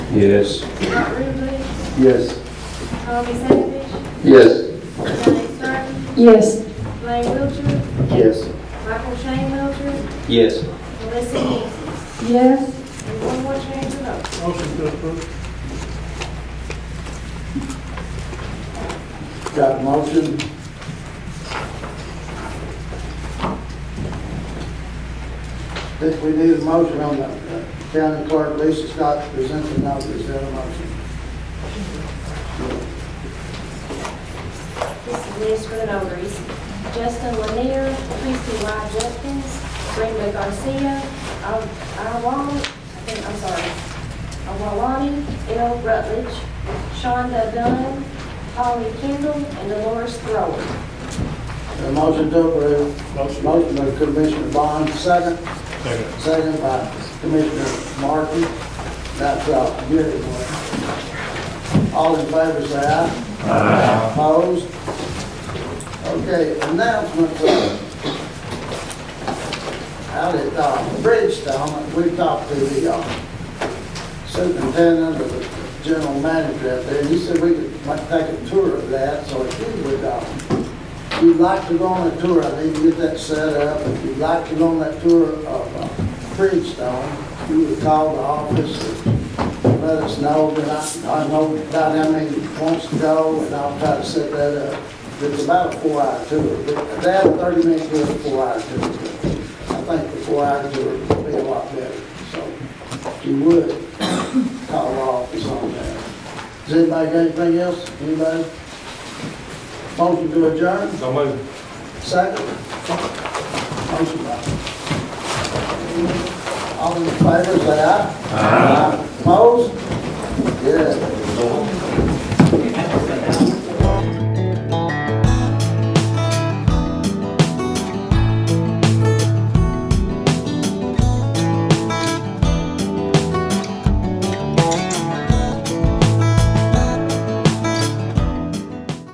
Yes. Mark Ruben, Yes. Tommy Savage, Yes. Johnny Stark, Yes. Blaine Wiltshire, Yes. Michael Shane Wiltshire, Yes. Melissa Nancy. Yes. And one more change of vote. Motion to approve. Got a motion? Think we need a motion on the uh, county clerk, Lisa Scott, to present the notice, is that a motion? This is list for the notaries. Justin Lanier, Christie Y. Jenkins, Brenda Garcia, Al- Alwan, I think, I'm sorry, Awalani, L. Rutledge, Shonda Dunn, Holly Kendall, and Dolores Thrower. A motion to approve. Motion. by Commissioner Bond, second. Second. Second by Commissioner Markey. That's all, Give it one. All in favor, say aye. Aye. Opposed? Okay, announcements. of- Out at uh, Bridgestone, we talked to the uh, superintendent or the general manager out there, and he said we could might take a tour of that, so if you would, uh, if you'd like to go on a tour, I need to get that set up. If you'd like to go on that tour of uh, Bridgestone, you would call the office and let us know, but I, I know about how many wants to go, and I'll try to set that up. It's about a four-hour tour, but that thirty-minute tour, four-hour tour. I think the four-hour tour would be a lot better, so if you would, call the office on that. Does anybody got anything else? Anybody? Motion to adjourn? So moved. Second. Motion by. All in favor, say aye. Aye. Opposed? Yeah.